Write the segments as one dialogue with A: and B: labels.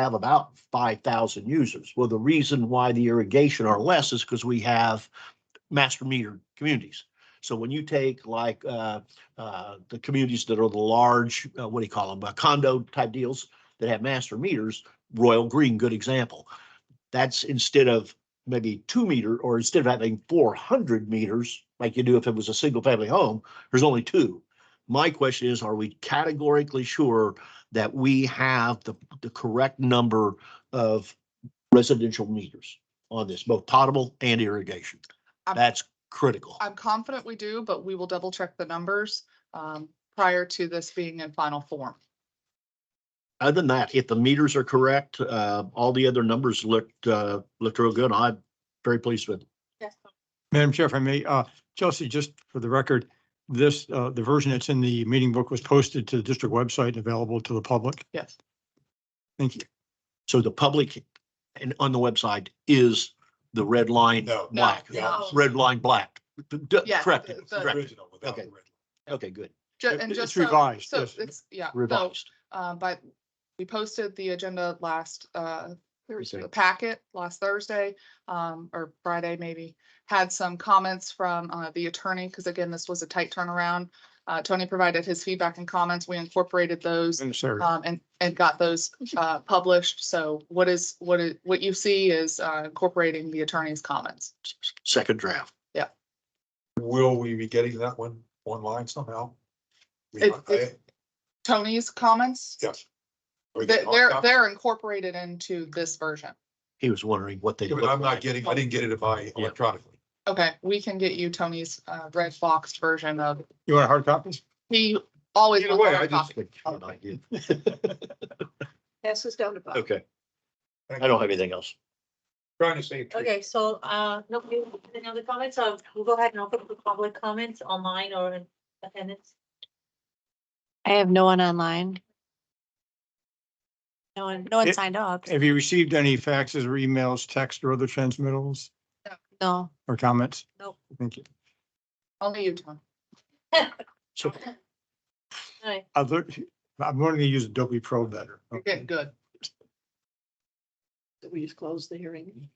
A: have about five thousand users. Well, the reason why the irrigation are less is because we have master metered communities. So when you take like, uh, uh, the communities that are the large, uh, what do you call them, condo type deals that have master meters, Royal Green, good example. That's instead of maybe two meter, or instead of having four hundred meters, like you do if it was a single family home, there's only two. My question is, are we categorically sure that we have the, the correct number of residential meters on this, both potable and irrigation?
B: I'm-
A: That's critical.
B: I'm confident we do, but we will double check the numbers um, prior to this being in final form.
A: Other than that, if the meters are correct, uh, all the other numbers looked, uh, looked real good. I'm very pleased with. it.
C: Madam Chair, if I may, uh, Chelsea, just for the record, this, uh, the version that's in the meeting book was posted to the district website, and available to the public.
B: Yes.
C: Thank you.
A: So the public and on the website is the red line
D: No.
B: No,
A: black,
B: no.
A: red line black. D- d-
B: Yeah,
A: Correct.
B: the-
A: it,
B: the-
A: correct.
D: Original without
A: Okay.
D: the red.
A: Okay, good.
B: Ju-
C: It-
B: and
C: it's
B: just so-
C: revised,
B: So
C: yes.
B: it's, yeah, so,
A: Revised.
B: uh, but we posted the agenda last, uh,
A: Thursday.
B: the packet last Thursday, um, or Friday maybe. Had some comments from, uh, the attorney, because again, this was a tight turnaround. Uh, Tony provided his feedback and comments. We incorporated those.
C: And Sarah.
B: um, and, and got those, uh, published. So what is, what is, what you see is, uh, incorporating the attorney's comments.
A: Second draft.
D: Will we be getting that one online somehow? We-
B: It- it- Tony's comments,
D: I- Yes. We
B: they-
D: can
B: they're,
D: talk about-
B: they're incorporated into this version.
A: He was wondering what they.
D: Yeah, but
A: look
D: I'm not
A: like.
D: getting, I didn't get it by electronically.
B: Okay, we can get you Tony's, uh, red boxed version of,
C: You want a hard copy?
B: he always.
D: Either
B: wants
D: way,
B: hard
D: I just-
B: copy.
E: Pass this down to Bob.
A: Okay, I don't have anything else.
D: Trying to say.
E: Okay, so, uh, nobody, any other comments? So we'll go ahead and open for public comments online or in attendance.
F: I have no one online.
E: No one, no one
C: It-
E: signed up.
C: Have you received any faxes or emails, text or other transmittals
F: No,
C: or comments?
E: Nope.
C: Thank you.
B: Only you, Tony.
A: So
E: Alright,
C: Other, I'm going to use Adobe Pro better.
B: You're getting good.
E: We just close the hearing.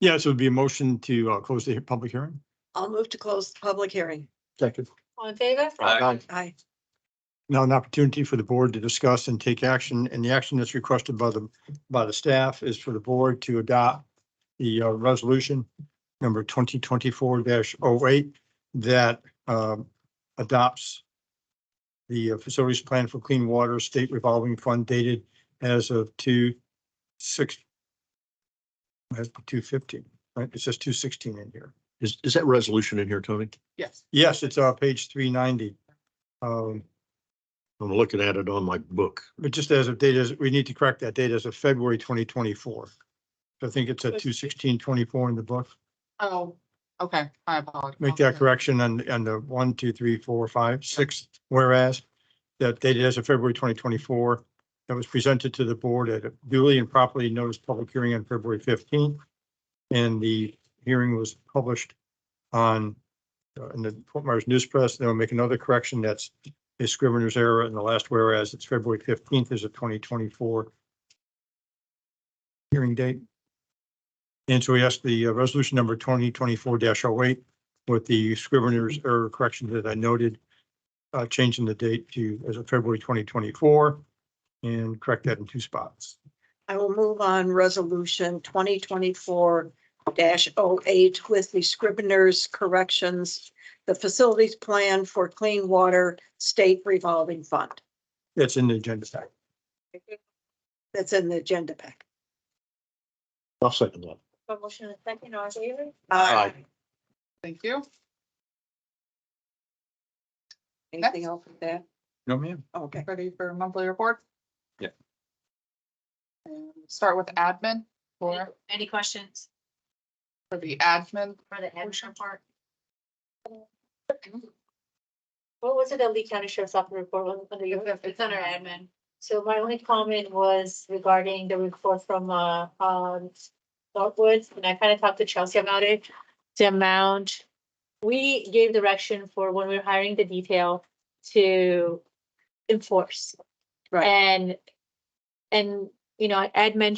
C: Yes, it would be a motion to, uh, close the public hearing.
E: I'll move to close the public hearing.
A: Second.
E: All in favor?
A: Aye.
E: Aye.
C: now an opportunity for the board to discuss and take action, and the action that's requested by the, by the staff is for the board to adopt the uh, resolution number twenty twenty-four 8 that um, adopts the uh, facilities plan for clean water state revolving fund dated as of two six that's two fifteen, right? It says two sixteen in here.
A: Is, is that resolution in here, Tony?
B: Yes.
C: Yes, it's uh page three ninety. Um,
A: I'm looking at it on my book.
C: But just as of data, we need to correct that date as of February twenty twenty-four. I think it's at two sixteen twenty-four in the book.
B: Oh, okay. I apologize.
C: Make that correction on, on the one, two, three, four, five, six, whereas that dated as of February twenty twenty-four. That was presented to the board at a duly and properly noticed public hearing on February fifteenth. And the hearing was published on, uh, in the Fort Myers News Press. Then we'll make another correction. That's a scrivener's error in the last whereas. It's February fifteenth is a twenty twenty-four hearing date. And so we asked the uh, resolution number twenty twenty-four oh 8 with the scrivener's error correction that I noted, uh, changing the date to as of February twenty twenty-four and correct that in two spots.
G: I will move on resolution twenty twenty-four 8 with the scrivener's corrections. The facilities plan for clean water state revolving fund.
C: That's in the agenda pack.
G: That's in the agenda pack.
A: I'll second that.
E: For motion and second, all in favor?
A: Aye.
B: Thank you.
G: Anything else with that?
C: No, ma'am.
G: Okay.
B: Ready for monthly report?
D: Yeah.
B: And Start with admin
E: Any-
B: for,
E: Any questions
B: for the admin.
E: for the admin report? What was it that Lee County Sheriff's Office report was under your, it's under admin? So my only comment was regarding the report from, uh, um, Northwoods, and I kind of talked to Chelsea about it. The amount, we gave direction for when we we're hiring the detail to enforce.
G: Right.
E: And, and you know, Ed mentioned